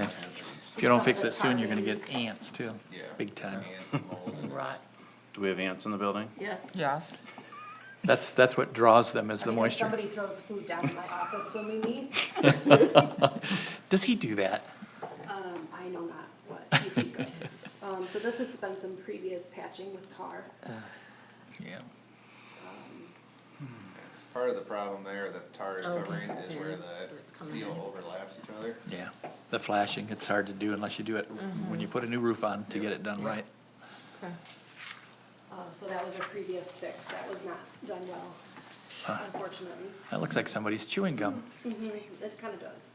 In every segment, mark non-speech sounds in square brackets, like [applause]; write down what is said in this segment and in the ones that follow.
If you don't fix it soon, you're gonna get ants too. Yeah. Big time. Ants and mold [laughs] and it's- Right, Do we have ants in the building? yes. Yes. That's, that's what draws them is the I mean, if moisture. Somebody throws food down in my office when we meet, Does he do that? um, I know not what, [laughs] he's good. Um, so this has been some previous patching with tar. Yeah. it's Part of the problem there that tar Oh, is Okay, covering so is where there's- it's the coming seal in. overlaps each other. Yeah. The flashing, it's hard to do unless you do it when you put a new roof on to get it done right. Uh, so that was a previous fix, that was not done well, unfortunately. That looks like somebody's chewing gum. Mhm, It kinda does.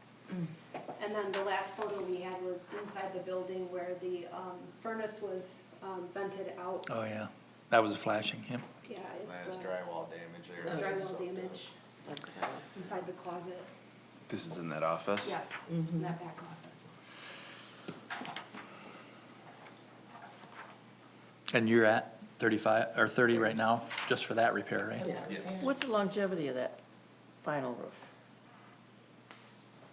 And then the last photo we had was inside the building where the, um, furnace was, um, vented out. Oh, yeah. That was a flashing, yeah. Yeah, it's, That's uh, drywall damage there. it's drywall damage inside the closet, This is in that office? yes, in that back office. And you're at thirty-five, or thirty right now, just for that repair, right? Yes. What's the longevity of that final roof?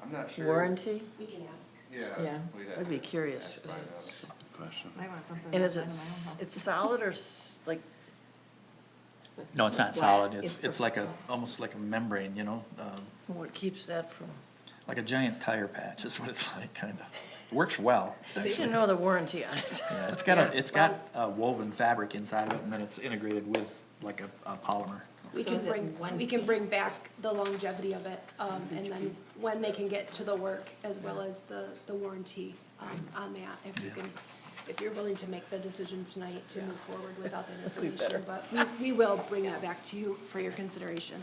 I'm not sure. Warranty? We can ask. Yeah. Yeah, we'd have I'd be to curious. find out. Good Question. I want something. And is it, outside of my own s- house. it's solid or s- like, No, it's not Flat. solid. It's, It's it's like a, almost like a membrane, you know, um, what keeps that from? like a giant tire patch is what it's [laughs] like, kind of. Works well. You actually. should know the warranty on it. Yeah, it's got a, it's got a woven fabric inside of it, and then it's integrated with like a, a polymer. We So can is it bring, one we can bring back the longevity of it, um, and then when they can get to the work as well as the, the warranty, um, on that, if you can, if you're willing to make the decision tonight to move forward without that information, but Uh, we, we will bring that back to you for your consideration.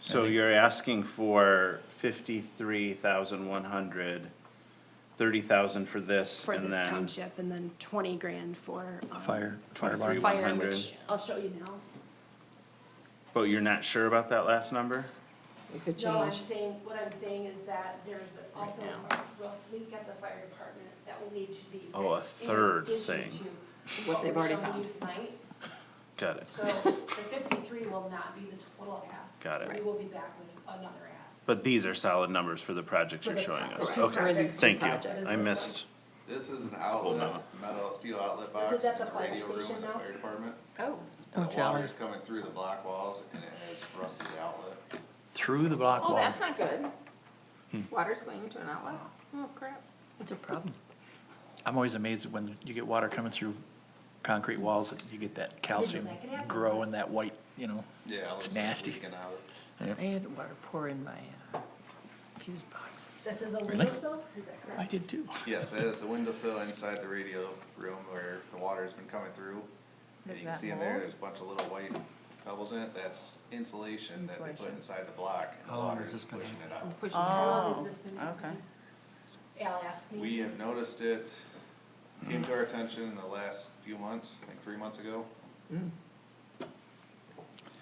So you're asking for fifty-three thousand one hundred, thirty thousand for this, For and this then township, and then twenty grand for, Fire, um, fire twenty-three alarm. one Fire, hundred. which I'll show you now. But you're not sure about that last number? It could No, I'm change. saying, what I'm saying is that there's also a roof leak at the fire department that will need to be fixed. Oh, a in third addition thing. to What they've we're already showing you found. tonight. Got it. [laughs] So the fifty-three will not be the total ask. Got it. We will be back with another ask. But these are solid numbers for the projects For you're the showing projects. us. Two Okay, projects, two thank you. projects. I missed. This is an Hold outlet, on. metal, steel outlet box. is at in the fire radio room station in the now? Fire department. Oh. Oh, The jolly. water's coming through the block walls and it has rusted outlet. Through the block Oh, wall. that's not good. Water's going into an outlet? Hmm. Oh, crap. It's a problem. I'm always amazed when you get water coming through concrete walls, that you get that calcium that could happen. grow and that white, you know. Yeah. It's it looks like it's nasty. leaking out. I had water pour in my uh, fuse boxes. This is a Really? windowsill, is that I correct? did too. Yes, that is the windowsill inside the radio room where the water's been coming through. And you Is can that see in there, mold? there's a bunch of little white pebbles in it. That's insulation that they put Insulation. inside the block and the How long water has is this been pushing it I'm up. pushing Oh, how long has this been okay. happening? Al asked me. We have noticed it, came to our attention in the last few months, like three months ago,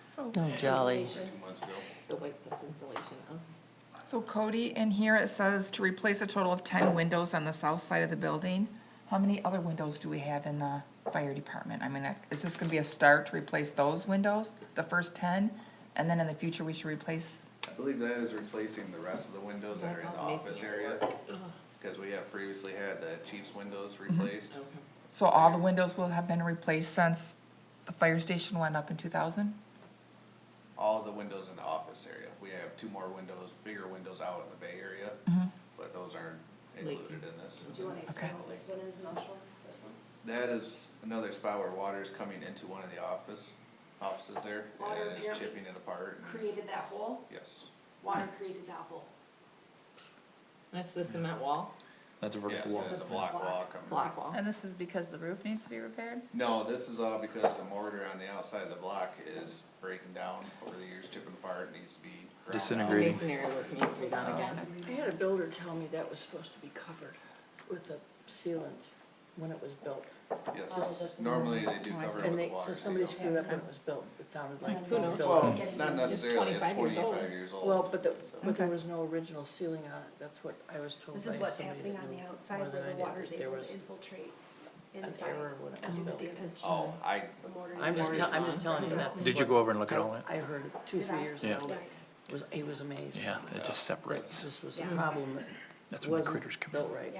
So, Oh, jolly. two months ago. The white stuff's insulation, oh. so Cody, in here it says to replace a total of ten windows on the south side of the building. How many other windows do we have in the fire department? I mean, is this gonna be a start to replace those windows, the first ten? And then in the future, we should replace, I believe that is replacing the rest of the windows that are in the That's all office masonry area. work. Cause we have previously had the chief's windows Oh. replaced. so all the windows will have been replaced since the fire station went up in two thousand? All the windows in the office area. We have two more windows, bigger windows out in the Bay Area. But those aren't included in this. Do you wanna explain what this one is, and I'll show this one? That is another spot where water is coming into one of the office, offices there, Water and it's barely chipping it apart. and- Created that hole, Yes, water created that hole. That's the cement wall, That's a yes, vertical wall. it's a block wall coming. block wall. And this is because the roof needs to be repaired? No, this is all because the mortar on the outside of the block is breaking down over the years, chipping apart, needs to be. ground out. Disintegrating. Great. Masonry work needs to be done again. I had a builder tell me that was supposed to be covered with a sealant when it was built. Yes, normally they do cover it with And a they, so water somebody seal. screwed up when it was built. It sounded like. Who knows? built. Well, not necessarily, it's 25 years twenty-five old. years old. Well, but the, but there Okay. was no original ceiling on it, that's what I was told by This is what's somebody that happening on knew the more outside than where I the did, water's that there able was to infiltrate an inside. error when it and was do built. damage. Oh, I, The mortar I'm is just, very tell- I'm strong. just telling you that's. Did you what go over and look at I- all that? I heard it two, Did three I? years Yeah. ago, was, he was amazed. Yeah, it just That separates. This was a Yeah. problem that That's when the wasn't critters come in. built right.